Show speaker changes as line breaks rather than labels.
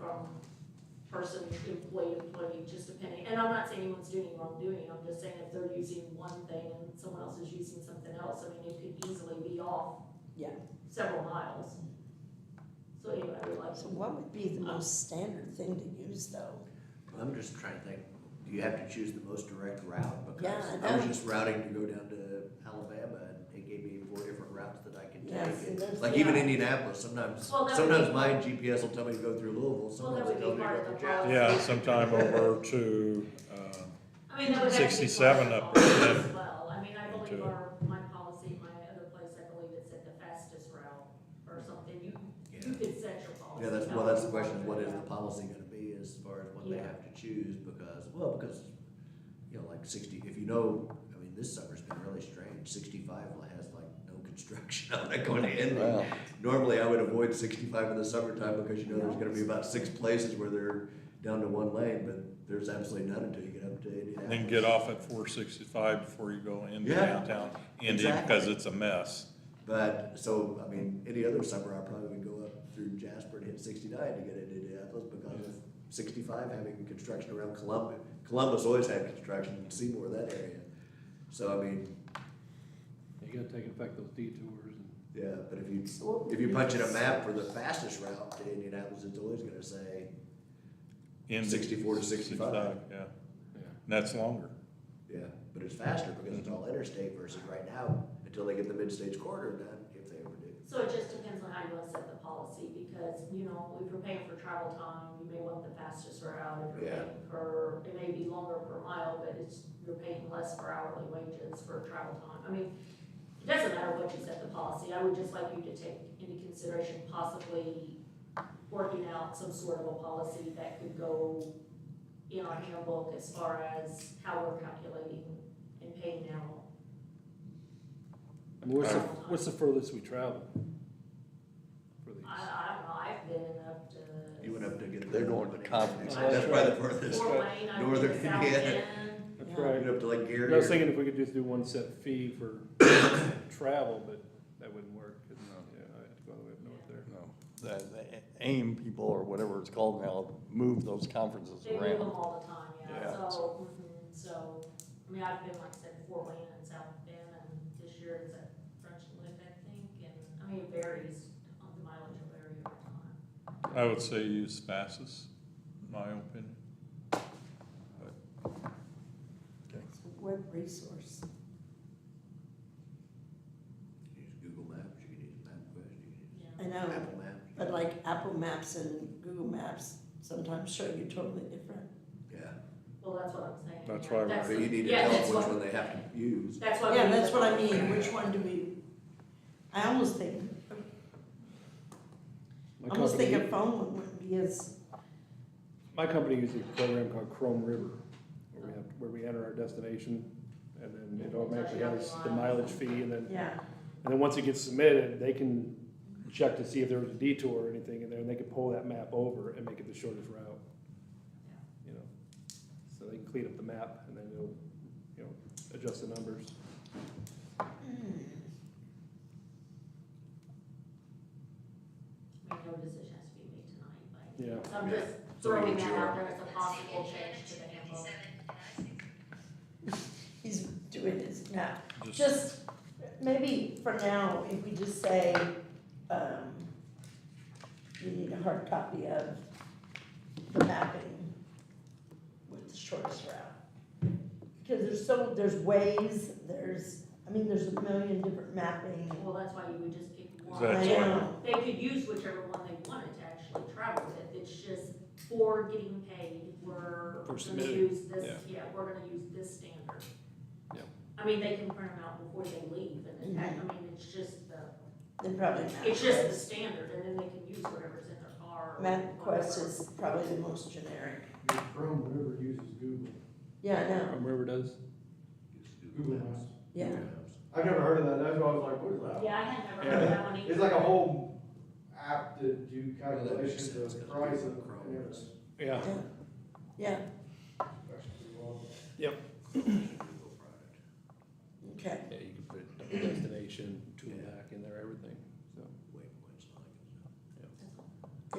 um, person, employee, employee, just depending, and I'm not saying anyone's doing any wrongdoing, I'm just saying if they're using one thing and someone else is using something else, I mean, it could easily be off.
Yeah.
Several miles. So anyway, I would like
So
to.
what would be the most standard thing to use though?
I'm just trying to think, do you have to choose the most direct route? Because
Yeah, I
I was
know.
just routing to go down to Alabama and it gave me four different routes that I could
Yes, and
take.
that's-
And Like even Indianapolis, sometimes,
Well, that would
sometimes
be-
my GPS will tell me to go through Louisville,
Well, that
sometimes
would
it
be
tells me to
part
go
of the
through Jackson.
policy.
Yeah, sometime over to, um,
I mean, that would actually be
67
part
up
of the
there,
policy As well, I mean, I believe
Okay.
our, my policy, my other place, I believe it said the fastest route or something, you, you
Yeah.
could set your policy.
Yeah, that's,
how
well, that's the
you
question,
want
what
it
is
to
the
go.
policy gonna be as far as what they
Yeah.
have to choose? Because, well, because, you know, like sixty, if you know, I mean, this summer's been really strange, sixty-five has like no construction on it going to Enron.
Well,
Normally, I would avoid sixty-five in the summertime because you know there's gonna be about six places where they're down to one lane, but there's absolutely none until you get up to Indianapolis.
then get off at four sixty-five before you go into
Yeah.
downtown Indy, because it's a mess.
But, so, I mean, any other summer, I probably would go up through Jasper and hit sixty-nine to get into Indianapolis because of sixty-five having construction around Columbus. Columbus always had construction, in Seymour, that area. So, I mean,
You gotta take and affect those detours and.
yeah, but if you,
So what would
if you
be
punch in
the
a map for the fastest route to Indianapolis, it's always gonna say,
Indy,
64 to 65.
Yeah, and that's longer.
Yeah, but it's faster because it's all interstate versus right now, until they get the mid-states corridor done, if they ever do.
So it just depends on how you want to set the policy, because, you know, if you're paying for travel time, you may want the fastest route, if you're
Yeah.
paying per, it may be longer per mile, but it's, you're paying less for hourly wages for travel time, I mean, it doesn't matter what you set the policy, I would just like you to take into consideration possibly working out some sort of a policy that could go in our handbook as far as how we're calculating and paying out.
What's the,
Alright.
what's the furthest we travel? For these?
I, I don't know, I've been up to.
You went up to get.
They're going to Conference.
That's probably the furthest.
Fort Wayne, I
Northern
think South
Indiana.
Bend.
That's
Yeah.
You
right.
went up to like Gary.
I was
or-
thinking if we could just do one set fee for travel, but that wouldn't work. 'cause, Yeah, I have to go all the way up north there.
No, the, the AIM people or whatever it's called now, move those conferences
They move them
around.
all the time, yeah,
Yeah.
so, mhm, so, I mean, I've been, like I said, Fort Wayne and South Bend, and this year it's at French Lick, I think, and, I mean, it varies on the mileage of area over time.
I would say use fastest, in my opinion.
So Web resource.
You can Use Google Maps, you can use MapQuest, you
Yeah.
I know,
can use Apple Maps.
but like Apple Maps and Google Maps sometimes show you totally different.
Yeah,
Well, that's what I'm saying.
That's
yeah,
why we-
but
that's
you
the-
need to
yeah,
tell
that's
them which
what-
one they have to use.
That's why. we
Yeah,
need
that's
the
what I
policy.
mean, which one do we, I almost think,
My
I almost think
company-
a phone one wouldn't be as,
My company uses a program called Chrome River, where we have, where we enter our destination, and then it automatically has the mileage fee, and then,
yeah,
and then once it gets submitted, they can check to see if there was a detour or anything in there, and they can pull that map over and make it the shortest route. You know, so they can clean up the map, and then it'll, you know, adjust the numbers.
I mean, no decision has to be made tonight, like,
Yeah.
so I'm
Yeah.
just
So we
throwing
need
that
your-
out there as a possible change to the handbook.
he's doing his now.
Just-
Just, maybe for now, if we just say, um, you need a hard copy of the mapping with the shortest route. Because there's so, there's ways, there's, I mean, there's a million different mapping.
Well, that's why you would just pick one.
That's
I
why-
know.
They could use whichever one they wanted to actually travel with, it's just for getting paid, we're
For
gonna
submitting,
use this, yeah, we're gonna use this standard.
Yeah.
I mean, they can print them out before they leave, and then, I mean, it's just the,
They probably map.
it's just the standard, and then they can use whatever's in their car. or
MapQuest
whatever.
is probably the most generic.
Chrome, whoever uses Google,
Yeah, I know,
Chrome River does?
Use
Google Maps.
yeah.
Google Maps.
I've never heard of that, that's why I was like, what is that?
Yeah, I had never heard of that one either.
It's like a whole app to do
Well, that makes
calculations
sense, 'cause
of price and
Google Chrome
and
is-
everything.
Yeah.
Yeah,
That's pretty wild.
Google product.
okay,
Yeah, you can put destination,